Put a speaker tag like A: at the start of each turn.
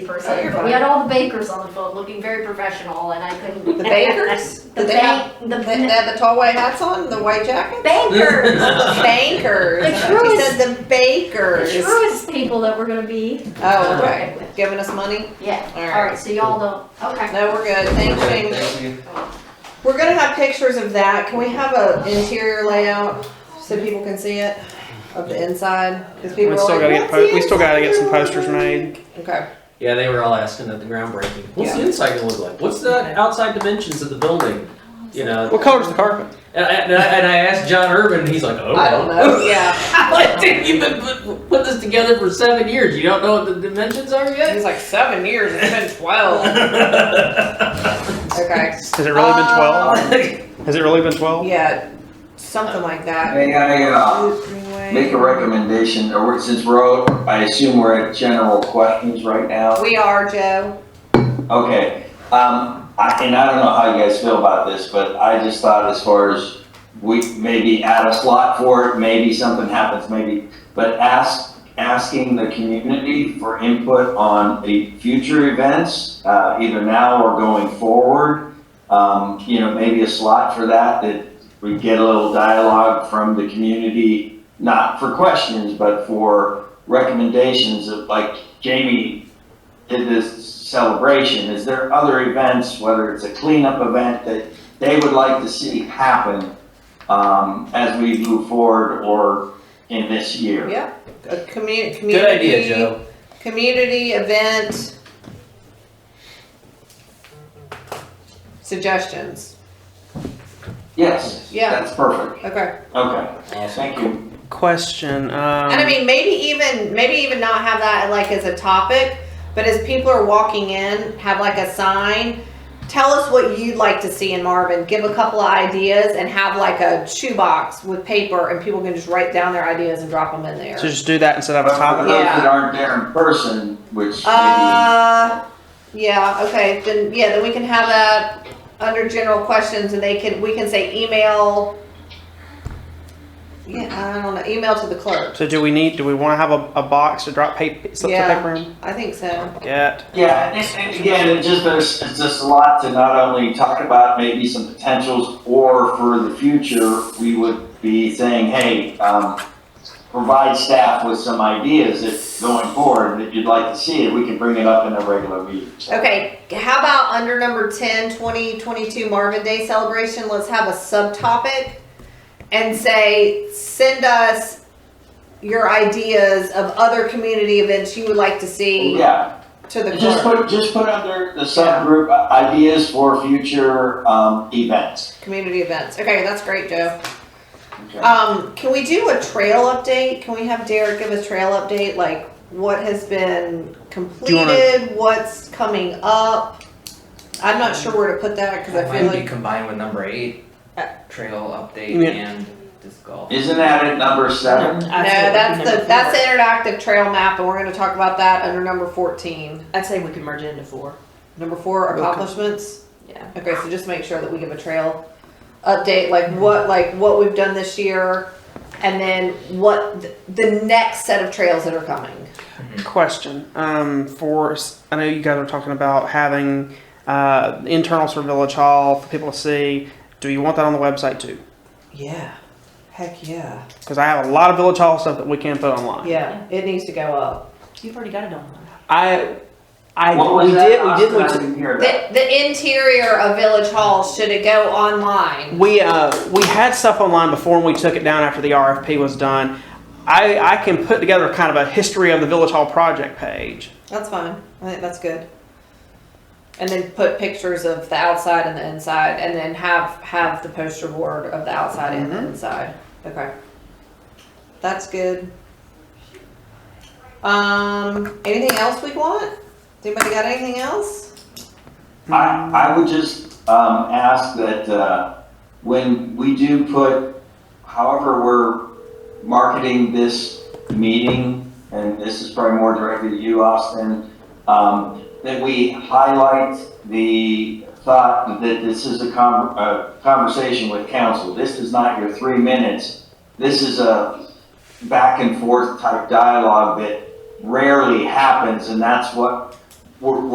A: person.
B: Oh, you're fine.
A: We had all the bakers on the phone looking very professional and I couldn't.
B: The bakers?
A: The
B: Did they have,
A: bank,
B: they they
A: the
B: had the tall white hats on, the white jackets?
A: bankers,
B: Bankers.
A: The
B: She
A: truest-
B: said the
A: the
B: bakers.
A: truest people that we're gonna be
B: Oh,
A: working
B: okay.
A: with.
B: Giving us money?
A: Yeah,
B: All right.
A: alright, so y'all don't, okay.
B: No, we're good. Thanks, Jamie.
C: Thank you.
B: We're gonna have pictures of that. Can we have a interior layout so people can see it of the inside? Because people
D: We
B: are
D: still
B: like,
D: gotta get
B: "What's the
D: po- we still gotta get some
B: inside
D: posters
B: look like?"
D: made.
B: Okay.
C: Yeah, they were all asking at the groundbreaking. What's the inside gonna look like? What's the outside dimensions of the building? You know,
D: What color's the carpet?
C: and I, and I, and I asked John Urban, and he's like, "Oh,
B: I don't know. Yeah.
C: like, dude, you've been put, put this together for seven years. You don't know what the dimensions are yet."
B: It's like seven years. It's been twelve. Okay.
D: Has it really been twelve? Has it really been twelve?
B: Uh, Yeah, something like that.
E: May I, uh, Make a recommendation, or we're- since we're all, I assume we're at general questions right now.
B: We are, Joe.
E: Okay, um, I, and I don't know how you guys feel about this, but I just thought as far as we maybe add a slot for it, maybe something happens, maybe, but ask, asking the community for input on the future events, uh, either now or going forward. Um, you know, maybe a slot for that, that we get a little dialogue from the community, not for questions, but for recommendations of, like Jamie did this celebration, is there other events, whether it's a cleanup event that they would like to see happen um, as we move forward or in this year?
B: Yeah, a commu- community.
C: Good idea, Joe.
B: Community event. Suggestions.
E: Yes.
B: Yeah.
E: That's perfect.
B: Okay.
E: Okay,
C: Awesome.
E: thank you.
D: Question. Um,
B: And I mean, maybe even, maybe even not have that like as a topic, but as people are walking in, have like a sign. Tell us what you'd like to see in Marvin. Give a couple of ideas and have like a shoebox with paper and people can just write down their ideas and drop them in there.
D: so just do that instead of a
E: But for
D: topic.
E: those that
B: Yeah.
E: aren't there in person, which maybe,
B: Uh, yeah, okay, then, yeah, then we can have that under general questions and they can, we can say email. Yeah, I don't know, email to the clerk.
D: So do we need? Do we want to have a, a box to drop paper slips
B: Yeah.
D: of paper in?
B: I think so.
D: Get.
B: Uh,
E: yeah, and, and again, it just, there's, it's just a lot to not only talk about maybe some potentials or for the future, we would be saying, hey, um, provide staff with some ideas if going forward, that you'd like to see, and we can bring it up in a regular meeting.
B: Okay, how about under number 10, 2022 Marvin Day celebration, let's have a subtopic and say, send us your ideas of other community events you would like to see
E: Yeah,
B: to the
E: Just
B: clerk.
E: put, just put under the subgroup uh, ideas for future, um, events.
B: Community events, okay, that's great, Joe.
E: Okay.
B: Um, can we do a trail update? Can we have Derek give a trail update, like what has been completed, what's coming up? I'm not sure where to put that, cause I
F: Why
B: feel
F: would you
B: like,
F: combine with number eight,
B: Uh,
F: trail update
D: Yeah.
F: and disc golf?
E: Isn't that at number seven?
B: no, that's the, that's the interactive trail map, and we're gonna talk about that under number fourteen.
G: I'd say we could merge it into four.
B: Number four, accomplishments.
G: Yeah.
B: Okay, so just make sure that we give a trail update, like what, like what we've done this year, and then what, th- the next set of trails that are coming.
D: Question. Um, for s- I know you guys were talking about having uh, internals for Village Hall for people to see. Do you want that on the website too?
B: Yeah, heck yeah.
D: Because I have a lot of Village Hall stuff that we can put online.
B: Yeah, it needs to go up.
G: You've already got it on.
D: I, I
E: What was
D: we
E: that?
D: did we
E: Austin,
D: did look
E: I
D: to-
E: didn't hear that.
B: The, the interior of Village Hall, should it go online?
D: We uh, we had stuff online before and we took it down after the RFP was done. I, I can put together kind of a history of the Village Hall project page.
B: That's fine, I think that's good. And then put pictures of the outside and the inside, and then have, have the poster board of the outside and the inside, okay. That's good. Um, anything else we want? Anybody got anything else?
E: I, I would just, um, ask that, uh, when we do put, however we're marketing this meeting, and this is probably more directed to you, Austin, um, that we highlight the thought that this is a con, a conversation with council. This is not your three minutes. This is a back and forth type dialogue that rarely happens, and that's what we're,